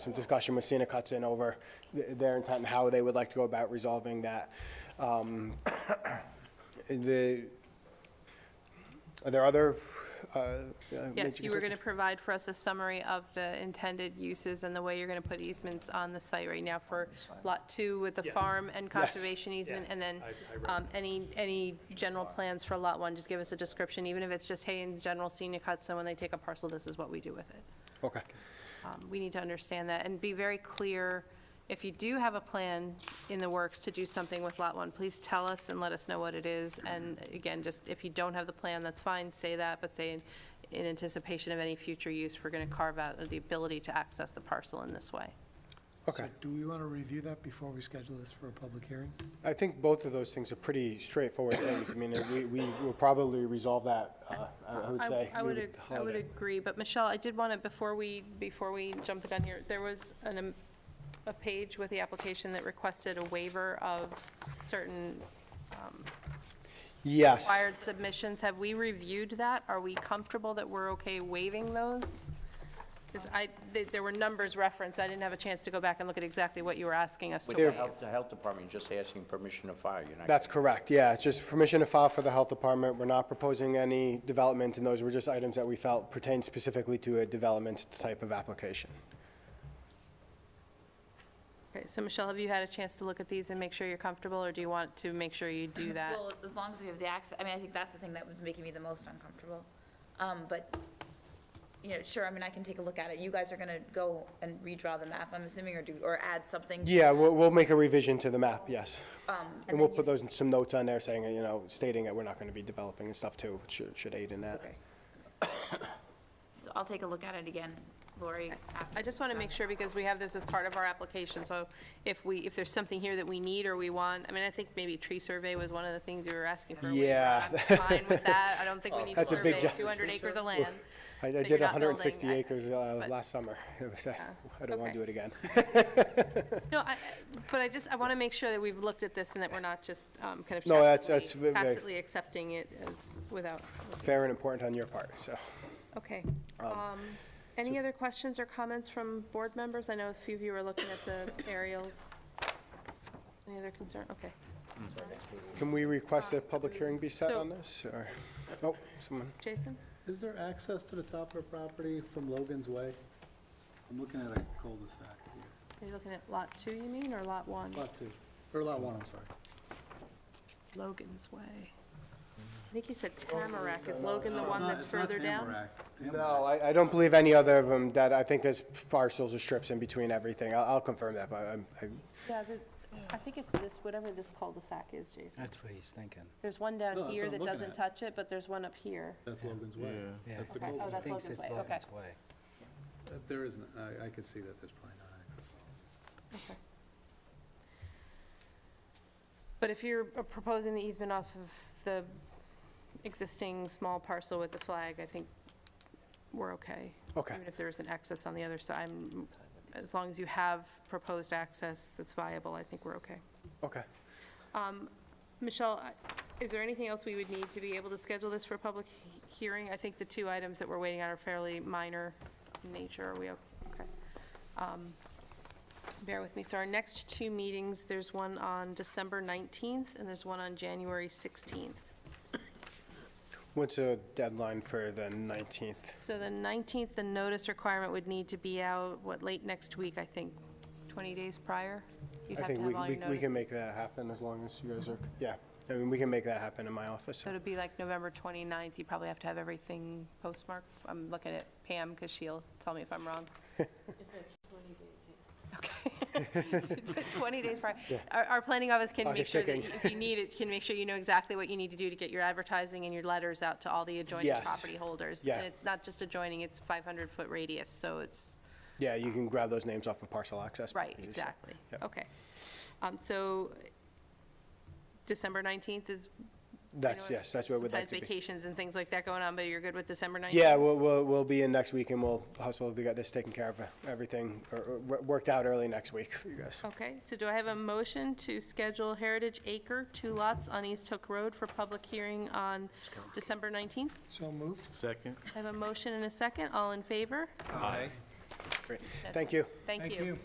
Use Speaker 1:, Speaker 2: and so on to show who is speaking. Speaker 1: some discussion with Sina Cutson over th- their intent and how they would like to go about resolving that. Um, The, are there other? uh, uh,
Speaker 2: Yes,
Speaker 1: major
Speaker 2: you were
Speaker 1: concerns?
Speaker 2: going to provide for us a summary of the intended uses and the way you're going to put easements on the site right now for Lot 2 with the
Speaker 3: Yeah.
Speaker 2: farm and conservation easement, and then
Speaker 3: I- I read
Speaker 2: um, any, any general plans for Lot 1, just give us a description, even if it's just, hey, in general, senior cuts, so when they take a parcel, this is what we do with it.
Speaker 1: Okay,
Speaker 2: Um, We need to understand that and be very clear, if you do have a plan in the works to do something with Lot 1, please tell us and let us know what it is. And again, just if you don't have the plan, that's fine, say that, but say in- in anticipation of any future use, we're going to carve out the ability to access the parcel in this way.
Speaker 1: okay.
Speaker 4: So do we want to review that before we schedule this for a public hearing?
Speaker 1: I think both of those things are pretty straightforward things. I mean, we, we will probably resolve that, uh, I I would say.
Speaker 2: I would,
Speaker 1: near
Speaker 2: ag-
Speaker 1: the
Speaker 2: I would
Speaker 1: holiday.
Speaker 2: agree, but Michelle, I did want to, before we, before we jump the gun here, there was an, am- a page with the application that requested a waiver of certain
Speaker 1: Yes.
Speaker 2: required submissions, have we reviewed that? Are we comfortable that we're okay waiving those? Because I, th- there were numbers referenced, I didn't have a chance to go back and look at exactly what you were asking us to
Speaker 5: With
Speaker 2: waive.
Speaker 5: the health, the health department, you're just asking permission to fire, you're not.
Speaker 1: That's correct, yeah, it's just permission to file for the health department. We're not proposing any development, and those were just items that we felt pertained specifically to a development type of application.
Speaker 2: Okay, so Michelle, have you had a chance to look at these and make sure you're comfortable, or do you want to make sure you do that?
Speaker 6: Well, as long as we have the access, I mean, I think that's the thing that was making me the most uncomfortable. Um, But, you know, sure, I mean, I can take a look at it. You guys are going to go and redraw the map, I'm assuming, or do, or add something?
Speaker 1: Yeah, we'll, we'll make a revision to the map, yes.
Speaker 6: um,
Speaker 1: And
Speaker 6: and
Speaker 1: we'll
Speaker 6: then
Speaker 1: put
Speaker 6: you-
Speaker 1: those, some notes on there saying, you know, stating that we're not going to be developing and stuff too, which should- should aid in that.
Speaker 6: Okay. So I'll take a look at it again, Lori. after
Speaker 2: I just want to make sure, because we have this as part of our application, so if we, if there's something here that we need or we want, I mean, I think maybe tree survey was one of the things we were asking for. a waiver.
Speaker 1: Yeah. Oh,
Speaker 2: I'm fine with that, I don't think we need to
Speaker 1: That's a big
Speaker 2: survey
Speaker 1: job.
Speaker 2: 200 acres of land.
Speaker 1: I I
Speaker 2: That
Speaker 1: did
Speaker 2: you're not
Speaker 1: 160
Speaker 2: building, I-
Speaker 1: acres uh,
Speaker 2: but-
Speaker 1: last summer. It was, uh, I don't want to do it
Speaker 2: okay.
Speaker 1: again.
Speaker 2: No, I, I- but I just, I want to make sure that we've looked at this and that we're not just um, kind of
Speaker 1: No, that's- that's
Speaker 2: tacitly,
Speaker 1: ve- ve-
Speaker 2: tacitly accepting it as, without,
Speaker 1: Fair and important on your part, so.
Speaker 2: okay. Um, Any other questions or comments from board members? I know a few of you are looking at the aerials. Any other concern? Okay.
Speaker 1: Can we request a public hearing be set
Speaker 2: Ah, So-
Speaker 1: on this, or? Oh, someone,
Speaker 2: Jason?
Speaker 7: Is there access to the top of her property from Logan's Way? I'm looking at a cul-de-sac here.
Speaker 2: Are you looking at lot two, you mean, or lot one?
Speaker 7: Lot two, or lot one, I'm sorry.
Speaker 2: Logan's Way. I think he said Tamarack. Is Logan the one that's further down?
Speaker 1: no, I, I don't believe any other of them that, I think there's parcels or strips in between everything. I'll, I'll confirm that, but I'm, I-
Speaker 2: Yeah, there's- I think it's this, whatever this cul-de-sac is, Jason.
Speaker 8: That's what he's thinking.
Speaker 2: There's one
Speaker 7: No,
Speaker 2: down
Speaker 7: that's
Speaker 2: here
Speaker 7: what I'm
Speaker 2: that
Speaker 7: looking
Speaker 2: doesn't
Speaker 7: at.
Speaker 2: touch it, but there's one up here.
Speaker 7: That's Logan's Way.
Speaker 8: Yeah.
Speaker 7: That's the
Speaker 2: Okay. Oh,
Speaker 7: cul-de-sac.
Speaker 2: that's
Speaker 8: He thinks
Speaker 2: Logan's
Speaker 8: it's
Speaker 2: Way, okay.
Speaker 8: Logan's Way.
Speaker 7: Uh, There isn't, I, I could see that there's probably not access.
Speaker 2: But if you're uh, proposing the easement off of the existing small parcel with the flag, I think we're okay.
Speaker 1: Okay.
Speaker 2: Even if there isn't access on the other side, I'm- as long as you have proposed access that's viable, I think we're okay.
Speaker 1: okay.
Speaker 2: Um, Michelle, I- is there anything else we would need to be able to schedule this for a public he- hearing? I think the two items that we're waiting on are fairly minor in nature. Are we, o- okay? Um, Bear with me. So our next two meetings, there's one on December 19th and there's one on January 16th.
Speaker 1: What's the deadline for the 19th?
Speaker 2: So the 19th, the notice requirement would need to be out, what, late next week, I think, 20 days prior? You'd
Speaker 1: I
Speaker 2: have to
Speaker 1: think
Speaker 2: have
Speaker 1: we,
Speaker 2: all
Speaker 1: we
Speaker 2: your
Speaker 1: we can make
Speaker 2: notices.
Speaker 1: that happen as long as you guys are, yeah. I mean, we can make that happen in my office.
Speaker 2: So it'd be like November 29th, you probably have to have everything postmarked. I'm looking at Pam because she'll tell me if I'm wrong. Okay. 20 days prior. Our, our planning office can
Speaker 1: Pocket
Speaker 2: make sure that
Speaker 1: checking.
Speaker 2: if you need it, can make sure you know exactly what you need to do to get your advertising and your letters out to all the adjoining
Speaker 1: Yes.
Speaker 2: property holders.
Speaker 1: Yeah.
Speaker 2: And it's not just adjoining, it's 500-foot radius, so it's,
Speaker 1: Yeah, you can grab those names off of parcel access.
Speaker 2: right,
Speaker 1: pages, so-
Speaker 2: exactly.
Speaker 1: Yep.
Speaker 2: Okay. Um, So December 19th is I
Speaker 1: That's,
Speaker 2: know
Speaker 1: yes, that's what we'd like to
Speaker 2: Sometimes
Speaker 1: be.
Speaker 2: vacations and things like that going on, but you're good with December 19th?
Speaker 1: Yeah, we'll, we'll, we'll be in next week and we'll hustle to get this taken care of, uh, everything, or, or wor- worked out early next week for you guys.
Speaker 2: Okay, so do I have a motion to schedule Heritage Acre, two lots on East Hook Road for public hearing on December 19th?
Speaker 4: So moved?
Speaker 3: Second.
Speaker 2: I have a motion and a second, all in favor?
Speaker 1: Aye. Great, thank you.
Speaker 2: Thank you.